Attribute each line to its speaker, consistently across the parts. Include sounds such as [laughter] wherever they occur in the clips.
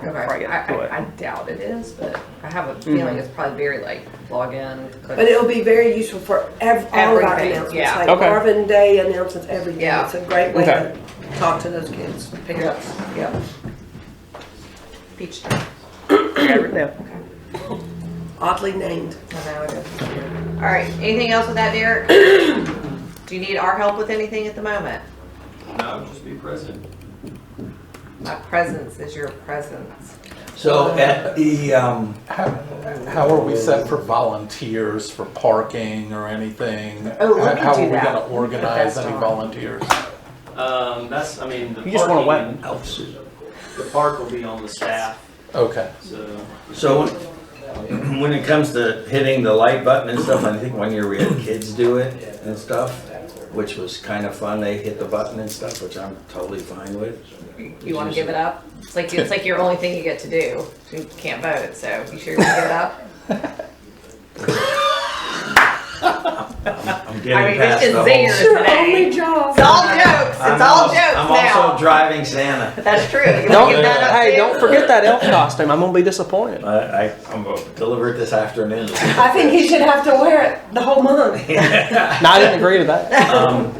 Speaker 1: before I
Speaker 2: Okay.
Speaker 1: get
Speaker 2: I,
Speaker 1: to it.
Speaker 2: I, I doubt it is, but I have a feeling it's probably very like log in. click-
Speaker 3: But it'll be very useful for ev- all of our
Speaker 2: Everything,
Speaker 3: announcements,
Speaker 2: yeah.
Speaker 3: like
Speaker 1: Okay.
Speaker 3: Marvin Day announcements, everything.
Speaker 2: Yeah.
Speaker 3: It's a great way
Speaker 1: Okay.
Speaker 3: to talk to those kids. Pick it up.
Speaker 2: Yep. Beach trip.
Speaker 1: I got it written
Speaker 3: Oddly named.
Speaker 2: I know it is. All right, anything else with that, Derek? Do you need our help with anything at the moment?
Speaker 4: No, just be present.
Speaker 2: My presence is your presence.
Speaker 5: So at the, um,
Speaker 6: How, how are we set for volunteers for parking or anything?
Speaker 2: Oh, let me
Speaker 6: How
Speaker 2: do
Speaker 6: are we
Speaker 2: that.
Speaker 6: gonna organize
Speaker 2: That's
Speaker 6: any
Speaker 2: on.
Speaker 6: volunteers?
Speaker 4: Um, that's, I mean, the
Speaker 1: You just wanna
Speaker 4: parking, the park will be on the staff,
Speaker 6: Okay,
Speaker 4: so.
Speaker 5: so when- [clears throat] when it comes to hitting the like button and stuff, I think one year we had kids do it and stuff, which was kind of fun. They hit the button and stuff, which I'm totally fine with.
Speaker 2: You want to give it up? It's like, it's like your only thing you get to do. You can't vote, so you sure you want to give it up?
Speaker 5: I'm
Speaker 2: I mean,
Speaker 5: getting
Speaker 2: it's
Speaker 5: past the
Speaker 2: just
Speaker 5: whole.
Speaker 2: zingers today. It's
Speaker 3: job.
Speaker 2: all jokes,
Speaker 5: I'm
Speaker 2: it's all
Speaker 5: also-
Speaker 2: jokes
Speaker 5: I'm also
Speaker 2: now.
Speaker 5: driving Santa.
Speaker 2: That's true. You
Speaker 1: [laughs]
Speaker 2: wanna
Speaker 1: Don't,
Speaker 2: give that up
Speaker 1: hey,
Speaker 2: too?
Speaker 1: don't forget that elf costume. I'm gonna be [laughs] disappointed.
Speaker 5: I, I, I'm gonna deliver it
Speaker 2: [laughs]
Speaker 5: this afternoon.
Speaker 3: I think he should have to wear it the whole month.
Speaker 1: No, I didn't agree to that.
Speaker 5: Um,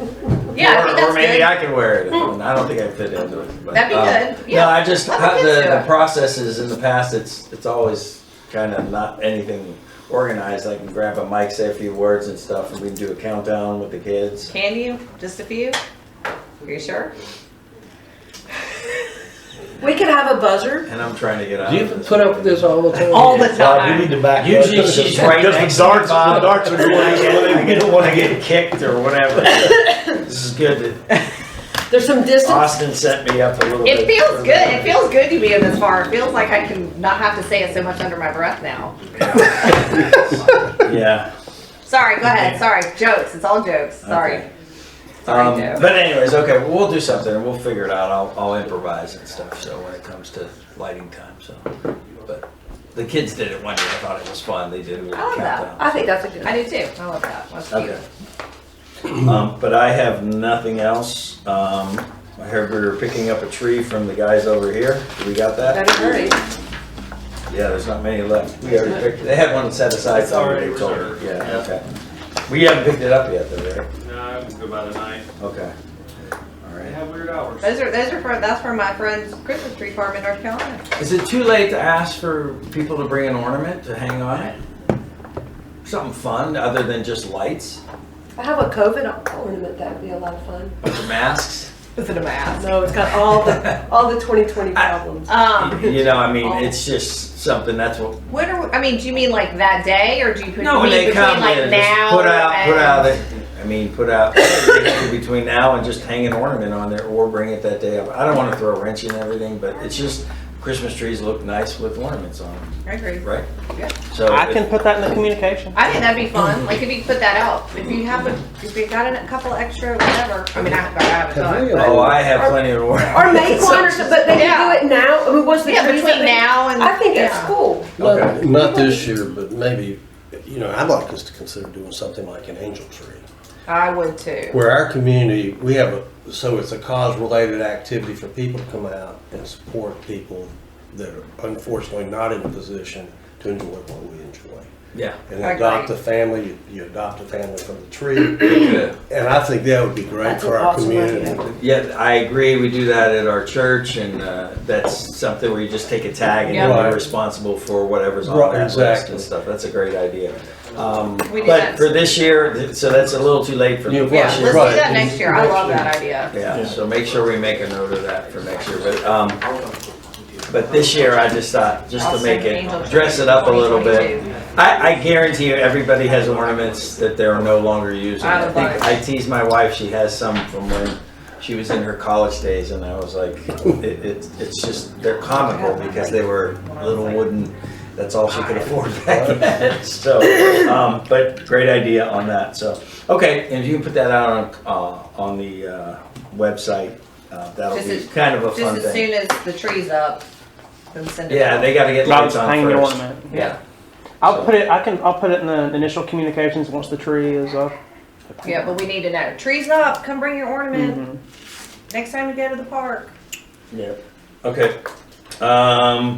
Speaker 2: Yeah, I
Speaker 5: or,
Speaker 2: think
Speaker 5: or
Speaker 2: that's
Speaker 5: maybe
Speaker 2: good. Hmm.
Speaker 5: I could wear it. I don't think I fit into it. But,
Speaker 2: That'd be
Speaker 5: um,
Speaker 2: good, yeah.
Speaker 5: No, I just
Speaker 2: Let the
Speaker 5: uh,
Speaker 2: kids do
Speaker 5: the, the
Speaker 2: it.
Speaker 5: process is in the past. It's it's always kind of not anything organized. I can grab a mic, say a few words and stuff, and we can do a countdown with the kids.
Speaker 2: Can you? Just a few? Are you sure?
Speaker 3: We could have a buzzer.
Speaker 5: And I'm trying to get out.
Speaker 7: Do you
Speaker 5: of this.
Speaker 7: put up with this all the time?
Speaker 2: All the
Speaker 5: Oh, Well,
Speaker 2: time.
Speaker 5: to back. Usually she's right next to the Bob. I don't want to get kicked or whatever. this is good.
Speaker 2: [laughs]
Speaker 5: that
Speaker 3: There's some distance.
Speaker 5: Austin set me up a little bit.
Speaker 2: It feels
Speaker 5: for
Speaker 2: good.
Speaker 5: that.
Speaker 2: It feels good to be in this far. It feels like I can not have to say it so much under my breath now.
Speaker 5: Yeah.
Speaker 2: Sorry, go ahead. Sorry. Jokes. It's all jokes. Sorry.
Speaker 5: Okay.
Speaker 2: Sorry,
Speaker 5: Um,
Speaker 2: Joe.
Speaker 5: But anyways, okay, well, we'll do something, we'll figure it out, I'll, I'll improvise and stuff, so when it comes to lighting time, so. But the kids did it one year, I thought it was fun, they did a little
Speaker 2: I love that.
Speaker 5: countdown.
Speaker 3: I think that's a good.
Speaker 2: I do too. I love that. That's cute.
Speaker 5: Okay. [clears throat] Um, but I have nothing else, um, I heard we were picking up a tree from the guys over here, we got that?
Speaker 3: That'd be great.
Speaker 5: Yeah, there's not many left, we already picked, they had one set aside,
Speaker 4: It's
Speaker 5: so
Speaker 4: already
Speaker 5: we told them,
Speaker 4: reserved,
Speaker 5: yeah,
Speaker 4: yeah.
Speaker 5: okay. We haven't picked it up yet though, right?
Speaker 4: No, I would go by the night.
Speaker 5: Okay. All
Speaker 4: They
Speaker 5: right.
Speaker 4: have weird hours.
Speaker 2: Those are those are for that's for my friend's Christmas tree farm in North Carolina.
Speaker 5: Is it too late to ask for people to bring an ornament to hang on it? Something fun other than just lights
Speaker 3: I have a COVID ornament. That would be a lot of fun.
Speaker 5: or masks?
Speaker 2: Is it a mask?
Speaker 3: No, it's got
Speaker 2: [laughs]
Speaker 3: all the all the 2020 problems.
Speaker 2: Um,
Speaker 5: You know, I mean, it's just something that's what.
Speaker 2: when are we, I mean, do you mean like that day, or do you put
Speaker 5: No, when
Speaker 2: mean
Speaker 5: they
Speaker 2: between
Speaker 5: come,
Speaker 2: like
Speaker 5: yeah,
Speaker 2: now
Speaker 5: just put out, put
Speaker 2: and-
Speaker 5: out. the- I mean, put out between now and just hang an ornament on there or bring it that day. I don't want to throw a wrench in everything, but it's just Christmas trees look nice with ornaments on them,
Speaker 2: I agree.
Speaker 5: right?
Speaker 2: Yeah.
Speaker 5: So
Speaker 1: I
Speaker 5: if-
Speaker 1: can put that in the communication.
Speaker 2: I think that'd be fun. Like if you put that out, if you have a, if you got a couple extra, whatever. I mean, I have, I have a ton. but-
Speaker 5: Oh, I have plenty of ornaments.
Speaker 3: Or make one or something, but they
Speaker 2: Yeah.
Speaker 3: can do it now. I mean, what's the
Speaker 2: Yeah,
Speaker 3: trees
Speaker 2: between
Speaker 3: that they-
Speaker 2: now and
Speaker 3: I think that's
Speaker 2: yeah.
Speaker 3: cool.
Speaker 7: Not, not this year, but maybe, you know, I'd like us to consider doing something like an angel tree.
Speaker 2: I would too.
Speaker 7: Where our community, we have a, so it's a cause-related activity for people to come out and support people that are unfortunately not in a position to enjoy what we enjoy.
Speaker 5: Yeah.
Speaker 7: And
Speaker 2: I
Speaker 7: adopt
Speaker 2: agree.
Speaker 7: a family, you- you adopt a family from the tree.
Speaker 5: Good.
Speaker 7: And I think that would be great
Speaker 3: That's
Speaker 7: for
Speaker 3: an
Speaker 7: our
Speaker 3: awesome idea.
Speaker 7: community.
Speaker 5: Yeah, I agree. We do that at our church, and uh, that's something where you just take a tag and
Speaker 2: Yeah.
Speaker 5: you're
Speaker 7: Right.
Speaker 5: responsible for whatever's on
Speaker 7: Right,
Speaker 5: that list
Speaker 7: exactly.
Speaker 5: and stuff. That's a great idea. Um,
Speaker 2: We do
Speaker 5: but
Speaker 2: that.
Speaker 5: for this year, th- so that's a little too late for
Speaker 7: Yeah,
Speaker 5: this
Speaker 2: Yeah,
Speaker 7: Right,
Speaker 2: let's
Speaker 5: year.
Speaker 2: do
Speaker 7: right.
Speaker 2: that next year. I love that idea.
Speaker 5: Yeah, so make sure we make a note of that for next year. But um, but this year, I just thought just to make it dress it up a little bit. I, I guarantee you, everybody has ornaments that they're no longer using.
Speaker 2: I
Speaker 5: I,
Speaker 2: would
Speaker 5: think,
Speaker 2: like-
Speaker 5: I tease my wife; she has some from when she was in her college days, and I was like, it, it, "It's just they're comical because they were little wooden. That's all she could afford back then." [laughs] So, um, but great idea on that. So, okay, and if you can put that out on uh, on the uh, website, uh, that'll
Speaker 2: Just
Speaker 5: be
Speaker 2: as-
Speaker 5: kind of a
Speaker 2: Just
Speaker 5: fun
Speaker 2: as
Speaker 5: thing.
Speaker 2: soon as the tree's up, then send it.
Speaker 5: Yeah,
Speaker 2: out.
Speaker 5: they got to get
Speaker 1: I'll
Speaker 5: lights
Speaker 1: just
Speaker 5: on
Speaker 1: hang the
Speaker 5: first.
Speaker 1: ornament.
Speaker 2: Yeah,
Speaker 1: I'll put it. I can. I'll put it in the initial communications once the tree is up.
Speaker 2: yeah, but we need to know. Tree's up. Come bring your ornament
Speaker 5: Mm-hmm.
Speaker 2: next time we go to the park.
Speaker 5: Yeah. Okay. Um,